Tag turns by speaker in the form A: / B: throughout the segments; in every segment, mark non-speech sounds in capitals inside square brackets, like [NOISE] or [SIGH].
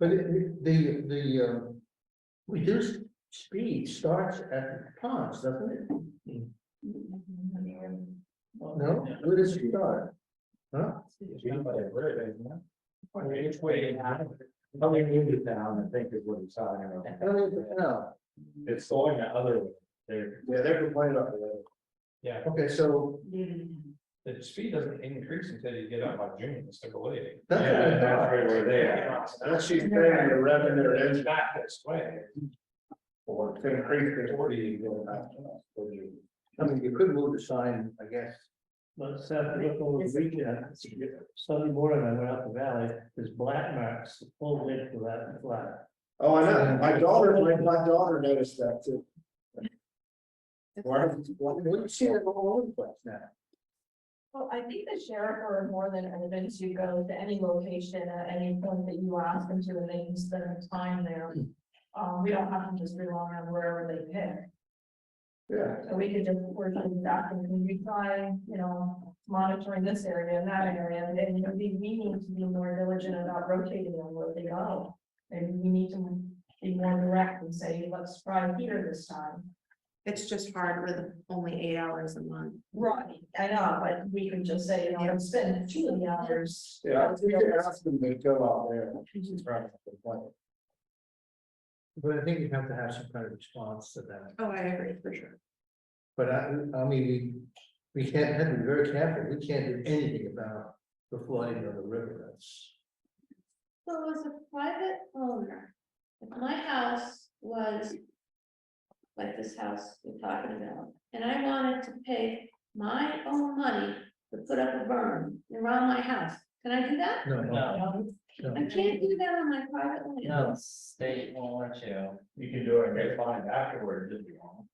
A: But it- it- the, the, uh, reduced speed starts at the ponds, doesn't it? No, where does it start? Huh?
B: It's way down. Probably moved it down, I think is what he's talking about.
A: Oh, it's- no.
B: It's going the other way. There,
A: Yeah, they're complaining about that.
C: Yeah,
A: Okay, so
C: the speed doesn't increase until you get up by June, it's the believe.
A: that's what I
B: Yeah, that's
A: thought.
B: right where they are.
C: That's she's paying the revenue, it's back this way. Or it's gonna creep to forty and go back.
A: I mean, you could move the sign, I guess.
D: But Seth, look over the weekend, Sunday morning, I went out the valley, there's black marks, the full width of that flat.
B: Oh, I know, my daughter, my, my daughter noticed that too. Why?
A: Well, you see them all over the place now.
E: Well, I think the sheriff or more than urban to go to any location at any point that you ask them to, and they can spend time there. Um, we don't have to just rely on wherever they pick,
A: Yeah.
E: so we could just work on that and can we try, you know, monitoring this area and that area, and then, you know, we, we need to be more diligent about rotating them where they go. And we need to be more direct and say, let's try here this time.
F: It's just hard with only eight hours a month.
E: Right, I know, but we can just say, you know, I'm spending two of the hours.
B: Yeah, we could ask them to go out there. and try to complain.
A: But I think you have to have some kind of response to that.
F: Oh, I agree, for sure.
A: But I, I mean, we, we can't, have to be very careful, we can't do anything about the flooding of the river, that's.
G: So as a private owner, if my house was. Like this house we're talking about, and I wanted to pay my own money to put up a berm around my house, can I do that?
A: No, no, no.
G: I can't do that on my private land.
D: No, state won't let you.
B: You can do it and get fined afterwards if you want.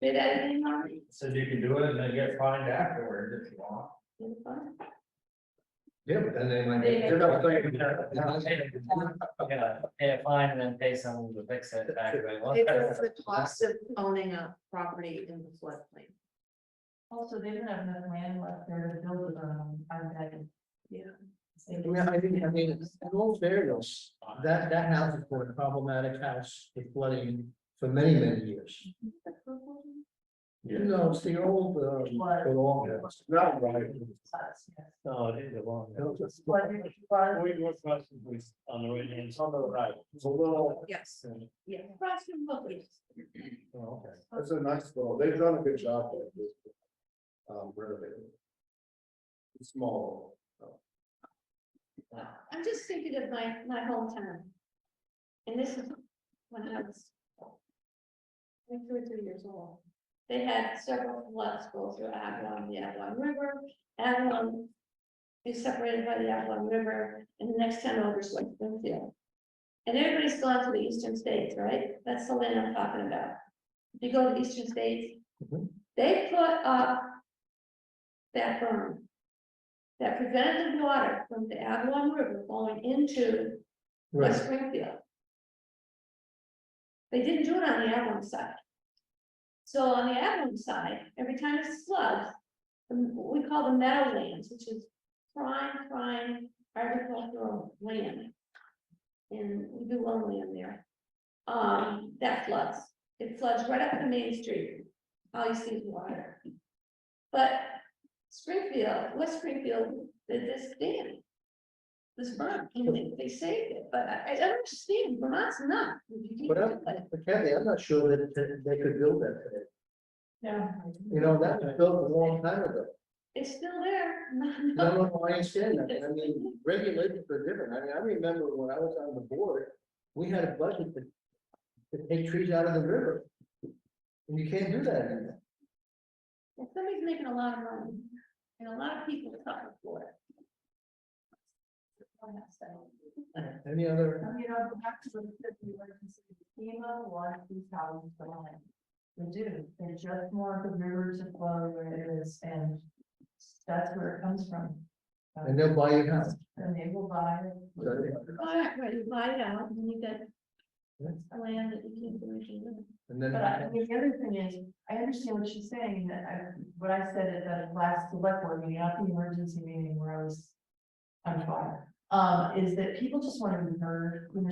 G: Did that in harmony?
B: So you can do it and then get fined afterwards if you want.
A: Yeah, but then they might.
E: They may-
A: They're not saying that. They're not saying that.
D: Yeah, pay a fine and then pay someone to fix it back.
F: It is the cost of owning a property in the floodplain.
E: Also, they don't have enough land left there to build on, on that.
F: Yeah.
A: Yeah, I think, I mean, in all fairness, that, that house has been a problematic house with flooding for many, many years. You know, it's the old, uh,
E: Flood.
A: the long house.
B: Not right.
D: No, it is a long.
B: We want questions
D: On the right hand.
B: on the right. It's a little,
F: Yes,
G: Across from Hooters.
A: Oh, okay.
B: it's a nice little, they've done a good job there. Um, renovating. Small.
G: I'm just thinking of my, my hometown. And this is when I was. like two or three years old. They had several floods go through Avalon, the Avalon River, Avalon. Is separated by the Avalon River and the next town over is West Springfield. And everybody's gone to the eastern states, right? That's the land I'm talking about. If you go to the eastern states,
A: Mhm.
G: they put up. That berm that prevented the water from the Avalon River going into West
A: Right,
G: Springfield. They didn't do it on the Avalon side. So on the Avalon side, every time it floods, the- what we call the meadowlands, which is prime, prime agricultural land. And we do own land there. Um, that floods, it floods right up to Main Street, all you see is water. But Springfield, West Springfield, did this dam this Vermont, and they, they saved it, but I, I don't understand, Vermont's not.
A: but I'm, but Kathy, I'm not sure that, that they could build that today.
E: Yeah.
A: You know, that was built a long time ago.
G: It's still there. [LAUGHS]
A: No, no, no, I understand that. I mean, regulations are different. I mean, I remember when I was on the board, we had a budget to. To take trees out of the river. And you can't do that anymore.
G: If Somebody's making a lot of money, and a lot of people suffer for it. Don't have to.
A: Any other?
E: You know, back to the fifty, where you see FEMA, one, two thousand, the line. They do, they're just more of the rivers of flow where it is, and that's where it comes from.
A: And they'll buy you house.
E: And they will buy.
G: All right, right, you buy it out, and you get
A: Yeah.
G: a land that you can't do anything with.
A: And then.
E: But I, I mean, the other thing is, I understand what she's saying, that I, what I said at the last select board meeting, not the emergency meeting where I was on fire. um, is that people just want to be heard when